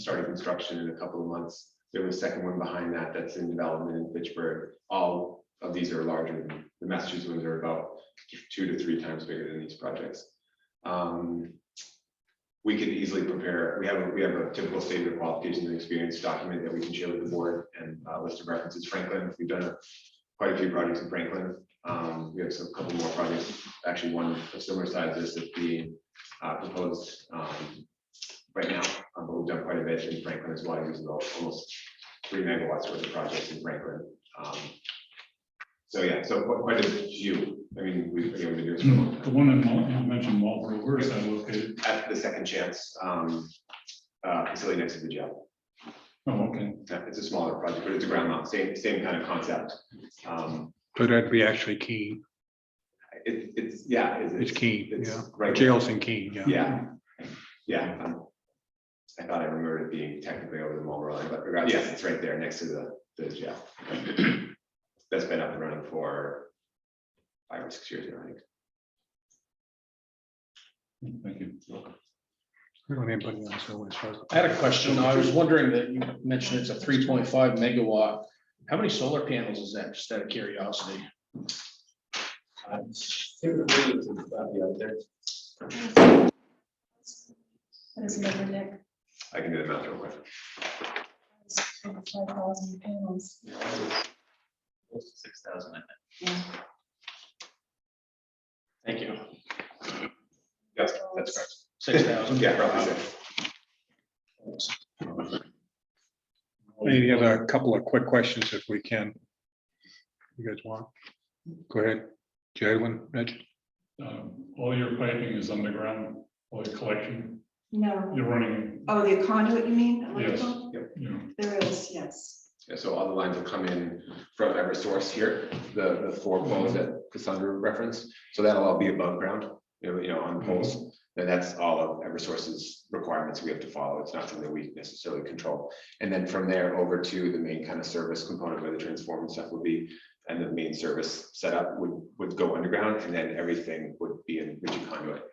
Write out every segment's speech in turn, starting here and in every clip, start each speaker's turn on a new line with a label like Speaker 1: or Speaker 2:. Speaker 1: starting construction in a couple of months. We have a second one behind that that's in development in Fitchburg. All of these are larger. than The Massachusetts ones are about two to three times bigger than these projects. Um, We can easily prepare, we have, a we have a typical statement of qualifications and experience document that we can share with the board and uh, list of references. Franklin, we've done a- quite a few projects in Franklin. Um, We have some, couple more projects, actually one of similar sizes that's being uh, proposed um, right now, um, but we've done quite a bit in Franklin as well, using al- almost three megawatts worth of projects in Franklin. Um, So yeah, so quite- quite a few, I mean, we've been able to do this for a long time.
Speaker 2: The one in Wal- you mentioned Marlboro, where is that located?
Speaker 1: at the second chance um, uh, facility next to the jail.
Speaker 2: Oh, okay.
Speaker 1: Yeah, It's a smaller project, but it's a ground mount, same, same kind of concept. Um,
Speaker 3: So that'd be actually Keene,
Speaker 1: It, it's, yeah.
Speaker 3: it's Keene,
Speaker 1: It's
Speaker 3: yeah,
Speaker 1: right.
Speaker 3: jails in Keene, yeah.
Speaker 1: Yeah, yeah. um, I thought I remembered it being technically over the Marlboro line, but regardless, yes, it's right there next to the, the jail. That's been up and running for five or six years now, I think.
Speaker 2: Thank you.
Speaker 3: We don't have anybody else who wants to-
Speaker 4: I had a question. I was wondering that you mentioned it's a three point five megawatt. How many solar panels is that? Just out of curiosity.
Speaker 5: That is another deck,
Speaker 1: I can do the math real quick.
Speaker 5: five thousand panels.
Speaker 6: Six thousand, I think.
Speaker 4: Thank you.
Speaker 1: Yes, that's correct.
Speaker 4: Six thousand.
Speaker 1: Yeah, roughly six.
Speaker 3: Any other couple of quick questions if we can? You guys want? Go ahead, Jalen, Rich,
Speaker 2: Um, All your piping is underground, all your collection,
Speaker 5: No,
Speaker 2: you're running,
Speaker 5: oh, the conduit, you mean?
Speaker 2: Yes.
Speaker 5: electrical?
Speaker 2: you know,
Speaker 5: There is, yes.
Speaker 1: Yeah, so all the lines will come in from every source here, the, the four poles that Cassandra referenced. So that'll all be above ground, you know, you know, on poles. And that's all of every source's requirements we have to follow. It's not something we necessarily control. And then from there over to the main kind of service component where the transformer and stuff would be. And the main service setup would, would go underground and then everything would be in rigid conduit.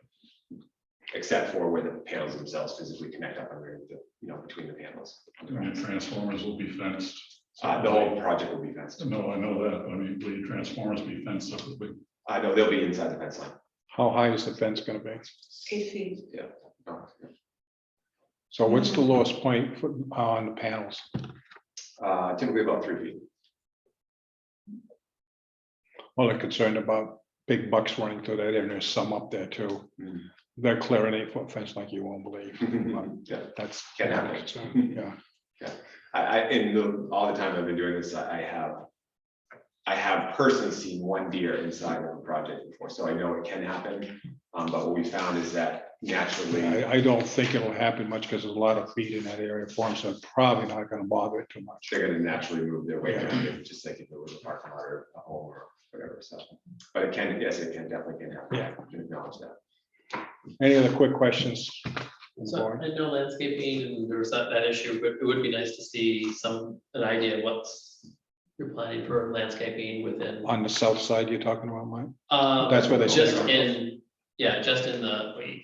Speaker 1: Except for where the panels themselves physically connect up under the, you know, between the panels.
Speaker 2: and the transformers will be fenced.
Speaker 1: Uh, the whole project will be fenced.
Speaker 2: No, I know that, but I mean, will your transformers be fenced separately?
Speaker 1: I know they'll be inside the fence line.
Speaker 3: how high is the fence gonna be?
Speaker 5: Eight feet.
Speaker 3: So what's the lowest point for- on the panels?
Speaker 1: Uh, typically about three feet.
Speaker 3: Well, they're concerned about big bucks running through that, and there's some up there too.
Speaker 1: Hmm.
Speaker 3: They're clearing eight foot fence like you won't believe,
Speaker 1: Yeah,
Speaker 3: that's.
Speaker 1: Can happen.
Speaker 3: So, Yeah.
Speaker 1: I, I, in the, all the time I've been doing this, I I have. I have personally seen one deer inside of a project before, so I know it can happen. Um, but what we found is that naturally,
Speaker 3: I, I don't think it'll happen much because there's a lot of feed in that area for them, so it's probably not gonna bother it too much.
Speaker 1: they're gonna naturally move their way around it, just like if it was a parking lot or a home or whatever, so. But it can, yes, it can definitely can happen.
Speaker 3: Yeah.
Speaker 1: I can Acknowledge that.
Speaker 3: Any other quick questions?
Speaker 6: So I know landscaping and there was that, that issue, but it would be nice to see some, an idea of what's you're planning for landscaping within.
Speaker 3: On the south side you're talking about, Mike?
Speaker 6: Uh,
Speaker 3: That's where they.
Speaker 6: Just in, yeah, just in the, wait,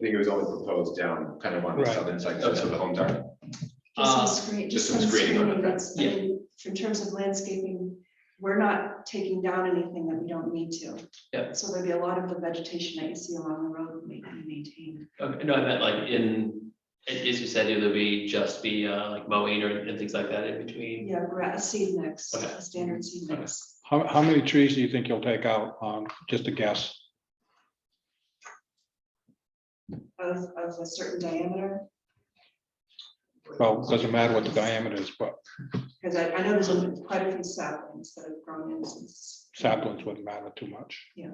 Speaker 1: I think it was only proposed down kind of on the
Speaker 3: Right.
Speaker 1: southern side, so the homes are.
Speaker 5: Just
Speaker 6: Uh,
Speaker 5: some screen.
Speaker 1: just some screening on the
Speaker 5: That's, I
Speaker 6: Yeah.
Speaker 5: mean, in terms of landscaping, we're not taking down anything that we don't need to.
Speaker 6: Yeah.
Speaker 5: So maybe a lot of the vegetation that you see along the road may be maintained.
Speaker 6: okay, no, I meant like in, as you said, either be just be uh, like mowing or and things like that in between.
Speaker 5: Yeah, we're at a seed mix,
Speaker 6: Okay.
Speaker 5: a standard seed mix.
Speaker 3: How, how many trees do you think you'll take out? Um, just a guess.
Speaker 5: of, of a certain diameter,
Speaker 3: Well, it doesn't matter what the diameter is, but
Speaker 5: because I, I know there's a- quite a few saplings that have grown in since.
Speaker 3: saplings wouldn't matter too much.
Speaker 5: Yeah.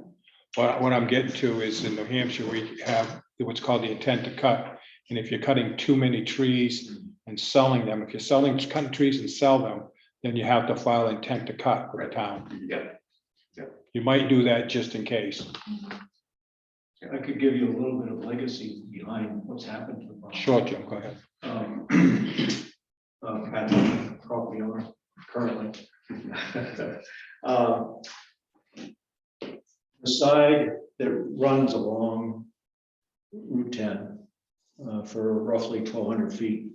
Speaker 3: What, what I'm getting to is in New Hampshire, we have what's called the intent to cut. And if you're cutting too many trees and selling them, if you're selling, cutting trees and sell them, then you have to file intent to cut with the town.
Speaker 1: Yeah,
Speaker 3: You might do that just in case.
Speaker 7: I could give you a little bit of legacy behind what's happened to the farm.
Speaker 3: Sure, Jim, go ahead.
Speaker 7: Um, uh, Pat, property owner currently. Um, The side that runs along Route ten uh, for roughly twelve hundred feet.